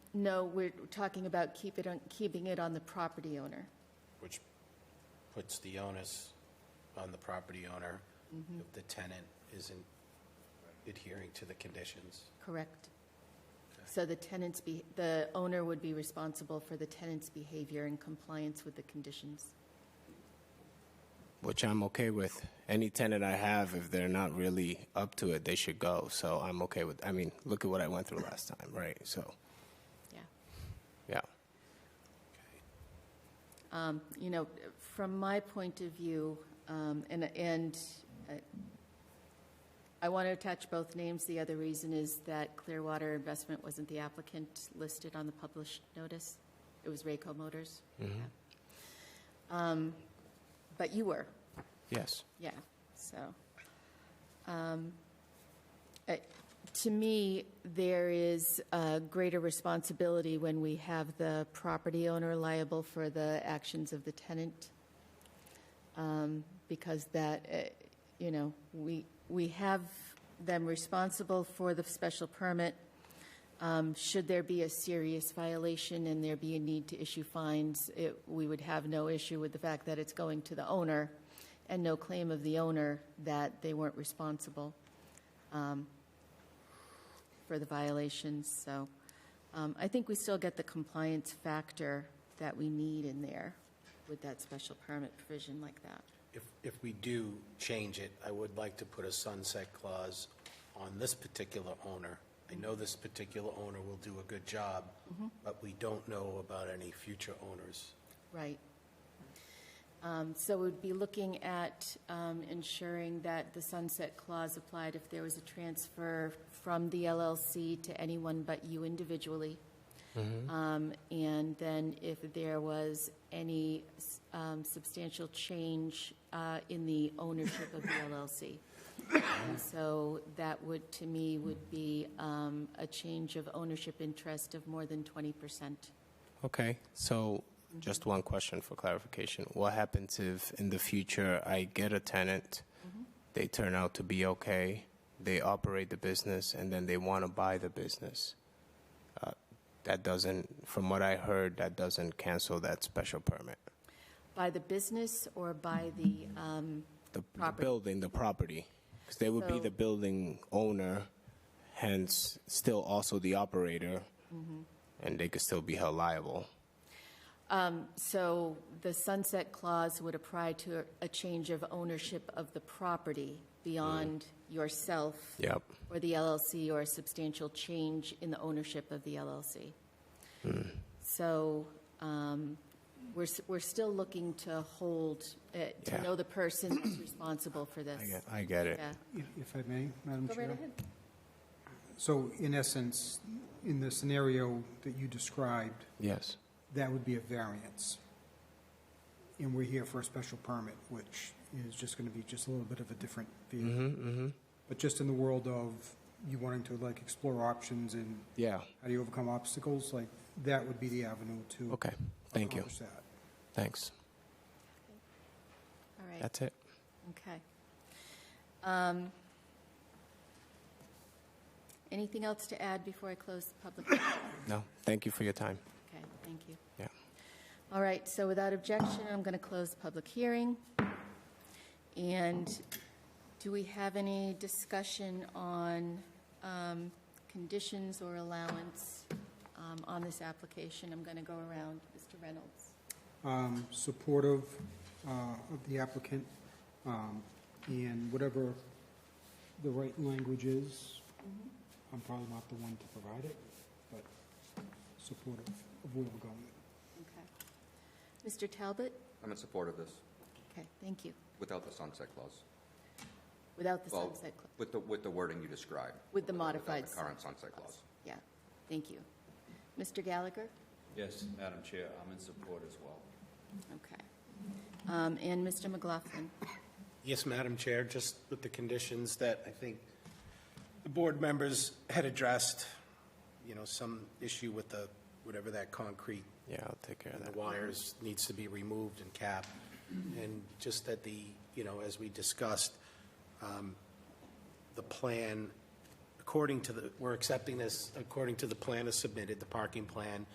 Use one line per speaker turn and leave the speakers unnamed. No, we're talking about keep it on, keeping it on the property owner.
which puts the onus on the property owner if the tenant isn't adhering to the conditions.
Correct. So the tenant's be, the owner would be responsible for the tenant's behavior in compliance with the conditions.
which I'm okay with. Any tenant I have, if they're not really up to it, they should go. So I'm okay with. I mean, look at what I went through last time, right? So,
Yeah.
yeah.
Um, You know, from my point of view, um, and, and uh, I want to attach both names. The other reason is that Clearwater Investment wasn't the applicant listed on the published notice. It was Rayco Motors. Um, But you were.
Yes.
Yeah, so. um, uh, To me, there is uh, greater responsibility when we have the property owner liable for the actions of the tenant. um, Because that, uh, you know, we, we have them responsible for the special permit. Um, Should there be a serious violation and there be a need to issue fines, it- we would have no issue with the fact that it's going to the owner and no claim of the owner that they weren't responsible um, for the violations. So um, I think we still get the compliance factor that we need in there with that special permit provision like that.
If, if we do change it, I would like to put a sunset clause on this particular owner. I know this particular owner will do a good job, but we don't know about any future owners.
Right. Um, So we'd be looking at um, ensuring that the sunset clause applied if there was a transfer from the LLC to anyone but you individually. Um, And then if there was any s- um, substantial change uh, in the ownership of the LLC. And so that would, to me, would be um, a change of ownership interest of more than 20%.
Okay. So, just one question for clarification: What happens if, in the future, I get a tenant, they turn out to be okay, they operate the business, and then they want to buy the business? Uh, that doesn't, from what I heard, that doesn't cancel that special permit.
By the business or by the, um,
The the
Property.
building, the property, because they would be
So-
the building owner, hence still also the operator,
Mm-hmm.
and they could still be held liable.
so the sunset clause would apply to a change of ownership of the property beyond
Mm.
yourself
Yep.
or the LLC or a substantial change in the ownership of the LLC.
Mm.
So um, we're, s- we're still looking to hold, uh, to
Yeah.
know the person that's responsible for this.
I get, I get it.
Yeah.
If if I may, Madam
Go
Chair.
right ahead.
So in essence, in the scenario that you described,
Yes.
that would be a variance. And we're here for a special permit, which is just going to be just a little bit of a different view.
Mm-hmm.
But just in the world of you wanting to like explore options and
Yeah.
how do you overcome obstacles, like that would be the avenue to
Okay. Thank you.
accomplish that.
Thanks.
All right.
That's it.
Okay. Um, Anything else to add before I close the public? hearing?
No. Thank you for your time.
Okay, thank you.
Yeah.
All right, so without objection, I'm going to close the public hearing. And do we have any discussion on um, conditions or allowance um, on this application? I'm going to go around, Mr. Reynolds.
um, supportive uh, of the applicant, um, and whatever the right language is, I'm probably not the one to provide it, but supportive of where we're going.
Okay. Mr. Talbot?
I'm in support of this,
Okay, thank you.
without the sunset clause.
Without the
Well,
sunset clause.
With the, with the wording you described.
With the
Without
modified
the current sunset clause.
Yeah, thank you. Mr. Gallagher?
Yes, Madam Chair, I'm in support as well.
Okay. Um, And Mr. McLaughlin?
Yes, Madam Chair, just with the conditions that I think the board members had addressed, you know, some issue with the, whatever that concrete
Yeah, I'll take care of
and
that.
the wires needs to be removed and capped. And just that the, you know, as we discussed, um, the plan, according according to the, we're accepting this according to the plan as submitted, the parking plan,